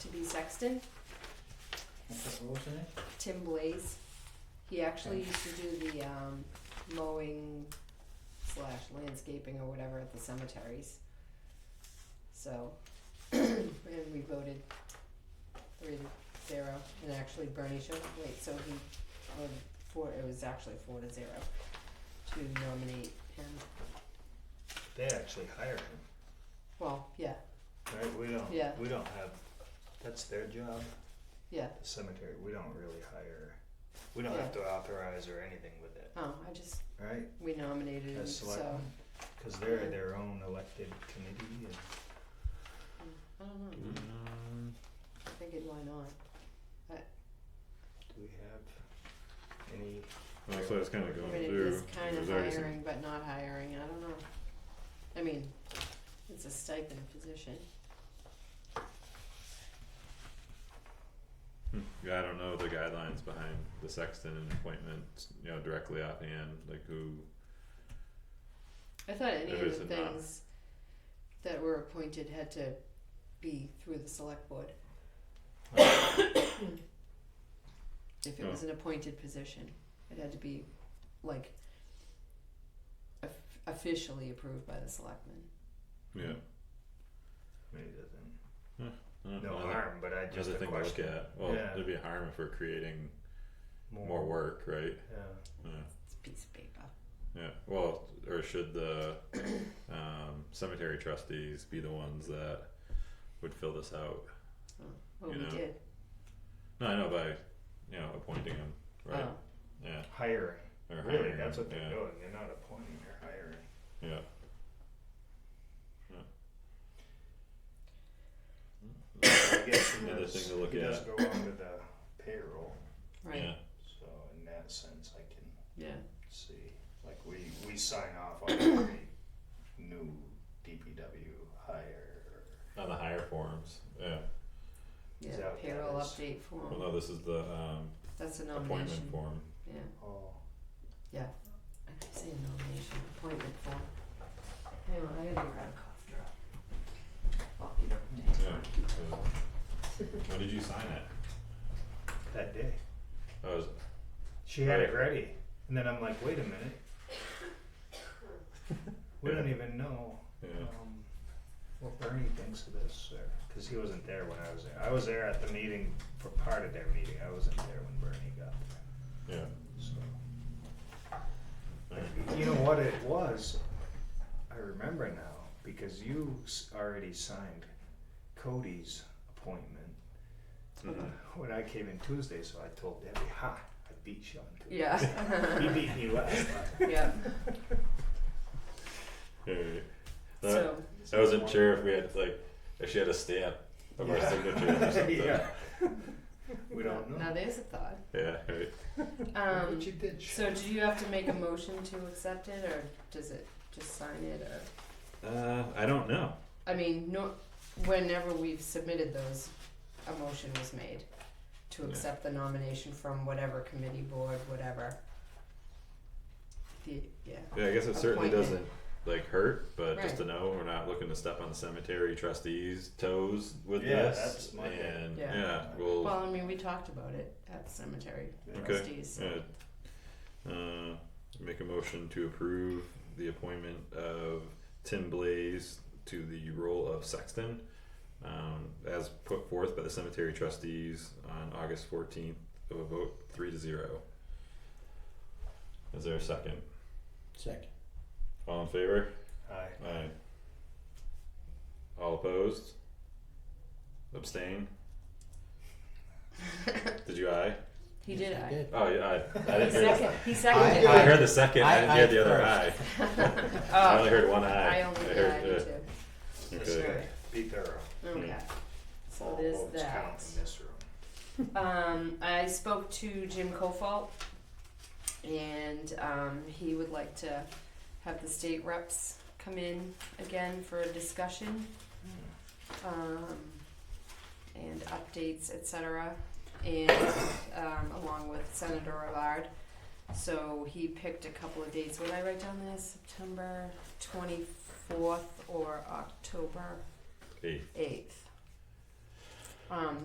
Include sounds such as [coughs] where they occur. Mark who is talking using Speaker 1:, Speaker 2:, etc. Speaker 1: B. Sexton,
Speaker 2: What was the name?
Speaker 1: Tim Blaze. He actually used to do the um, mowing slash landscaping or whatever at the cemeteries. So, [clears throat] and we voted three to zero, and actually Bernie showed, wait, so he, voted four, it was actually four to zero to nominate him.
Speaker 2: They actually hired him,
Speaker 1: Well, yeah,
Speaker 2: right? We don't,
Speaker 1: Yeah.
Speaker 2: we don't have, that's their job,
Speaker 1: yeah,
Speaker 2: the cemetery, we don't really hire. We don't have to authorize or anything with it,
Speaker 1: oh, I just,
Speaker 2: right?
Speaker 1: we nominated him,
Speaker 2: As
Speaker 1: Mm, so,
Speaker 2: selectmen, cause they're their own elected committee and.
Speaker 1: I don't know,
Speaker 3: Um,
Speaker 1: I figured why not,
Speaker 2: Do we have any,
Speaker 3: that's what I was kind of
Speaker 1: I
Speaker 3: going
Speaker 1: mean, it
Speaker 3: through.
Speaker 1: is kind of
Speaker 3: There's already some-
Speaker 1: hiring, but not hiring, I don't know, I mean, it's a stipend position,
Speaker 3: Hmm, Yeah, I don't know the guidelines behind the sexton and appointments, you know, directly offhand, like who,
Speaker 1: I thought any
Speaker 3: There
Speaker 1: of
Speaker 3: is
Speaker 1: the
Speaker 3: a not.
Speaker 1: things that were appointed had to be through the select board. If it
Speaker 3: Oh.
Speaker 1: was an appointed position, it had to be like of- officially approved by the selectmen.
Speaker 3: yeah.
Speaker 2: maybe doesn't,
Speaker 3: I don't
Speaker 2: Hmm. no
Speaker 3: know,
Speaker 2: harm, but I
Speaker 3: that-
Speaker 2: just
Speaker 3: Mm-hmm. Another
Speaker 2: a
Speaker 3: thing to look
Speaker 2: question.
Speaker 3: at, well,
Speaker 2: Yeah.
Speaker 3: there'd be harm if we're creating more work, right?
Speaker 2: Yeah.
Speaker 3: Yeah,
Speaker 1: It's a piece of paper.
Speaker 3: yeah, well, or should
Speaker 2: [coughs]
Speaker 3: the um cemetery trustees be the ones that would fill this out?
Speaker 1: Well,
Speaker 3: You
Speaker 1: Oh, we
Speaker 3: know,
Speaker 1: did.
Speaker 3: No, I know by, you know, appointing them, right,
Speaker 1: Oh,
Speaker 3: yeah,
Speaker 2: Hiring,
Speaker 3: or
Speaker 2: Oh, really,
Speaker 3: hiring
Speaker 2: that's
Speaker 3: 'em,
Speaker 2: what they're
Speaker 3: yeah.
Speaker 2: doing, they're not appointing, they're
Speaker 3: [coughs]
Speaker 2: hiring.
Speaker 3: Yeah. Yeah.
Speaker 2: I guess he
Speaker 3: Another
Speaker 2: does,
Speaker 3: thing to look
Speaker 2: he does
Speaker 3: at.
Speaker 2: go under the payroll,
Speaker 1: right.
Speaker 2: so in that sense, I can
Speaker 1: Yeah.
Speaker 2: see, like we, we sign off on every [coughs] new DPW hire.
Speaker 3: Yeah, on the higher forms, yeah,
Speaker 1: Yeah.
Speaker 2: Is that what that
Speaker 1: Payroll
Speaker 2: is?
Speaker 1: update
Speaker 3: well,
Speaker 1: form.
Speaker 3: no, this is the um
Speaker 1: That's a nomination.
Speaker 3: appointment form,
Speaker 1: Yeah.
Speaker 2: Oh,
Speaker 1: I keep saying nomination appointment form. Hang on, I gotta grab a cough drop. Well, you don't have to.
Speaker 3: yeah, so- When did you sign it?
Speaker 2: that day,
Speaker 3: Oh, is
Speaker 2: she had it ready, and then I'm like, wait a minute. [coughs] We don't even know,
Speaker 3: yeah,
Speaker 2: um, what Bernie thinks of this, or, cause he wasn't there when I was there, I was there at the meeting, for part of their meeting, I wasn't there when Bernie got there,
Speaker 3: yeah,
Speaker 2: so.
Speaker 3: alright,
Speaker 2: You know what it was? I remember now because you s- already signed Cody's appointment
Speaker 3: mhm,
Speaker 2: when I came in Tuesday, so I told Debbie, ha, I beat you on Tuesday. He
Speaker 1: Yeah.
Speaker 2: beat me last time.
Speaker 1: [laughs] yeah.
Speaker 3: alright. That,
Speaker 1: [laughs] So
Speaker 3: I wasn't sure if we had like, if she had a stamp of our
Speaker 2: Yeah.
Speaker 3: signature
Speaker 2: [laughs]
Speaker 3: or something, yeah,
Speaker 2: Yeah. We don't know.
Speaker 1: now there's a thought.
Speaker 3: alright,
Speaker 2: Look
Speaker 1: Um,
Speaker 2: what you did,
Speaker 1: so
Speaker 2: Sharon.
Speaker 1: do you have to make a motion to accept it, or does it just sign it, or?
Speaker 3: uh, I don't know,
Speaker 1: I mean, no, whenever we've submitted those, a motion was made to
Speaker 3: Yeah.
Speaker 1: accept the nomination from whatever committee, board, whatever. The, yeah,
Speaker 3: yeah, I guess it certainly doesn't
Speaker 1: Appointment.
Speaker 3: like hurt, but just
Speaker 1: Right.
Speaker 3: to know, we're not looking to step on the cemetery trustees' toes with
Speaker 2: Yeah,
Speaker 3: this,
Speaker 2: that's my thing.
Speaker 3: and,
Speaker 1: Yeah.
Speaker 3: yeah, we'll.
Speaker 1: well, I mean, we talked about it at the cemetery
Speaker 2: Okay.
Speaker 1: trustees.
Speaker 3: Uh, uh, make a motion to approve the appointment of Tim Blaze to the role of sexton. Um, as put forth by the cemetery trustees on August fourteenth of a vote three to zero. Is there a second?
Speaker 4: Second.
Speaker 3: All in favor?
Speaker 2: Hi.
Speaker 3: Aye. All opposed? Abstain? Did you aye?
Speaker 1: [laughs] He did,
Speaker 4: I
Speaker 1: I,
Speaker 4: did.
Speaker 3: Oh, yeah, I, I
Speaker 1: he
Speaker 3: didn't hear the
Speaker 1: seconded, he
Speaker 4: I
Speaker 1: seconded.
Speaker 3: I
Speaker 1: it.
Speaker 3: heard the second. I,
Speaker 4: I-
Speaker 3: didn't hear the
Speaker 4: I
Speaker 3: other eye.
Speaker 1: [laughs]
Speaker 4: first.
Speaker 3: I
Speaker 1: Oh,
Speaker 3: only heard one eye.
Speaker 1: I only did,
Speaker 3: heard, Hmm.
Speaker 1: I
Speaker 3: uh,
Speaker 1: did too.
Speaker 3: okay.
Speaker 2: Be thorough.
Speaker 1: Okay, so
Speaker 3: Oh,
Speaker 2: All
Speaker 1: there's
Speaker 2: votes
Speaker 1: that.
Speaker 2: count in this room.
Speaker 1: Um, I spoke to Jim Kofalt, and um, he would like to have the state reps come in again for a discussion Mm. um, and updates, etc. And um, along with Senator Rivard. So he picked a couple of dates. What did I write down there? September 24th or October
Speaker 3: Eight.
Speaker 1: 8th. Um,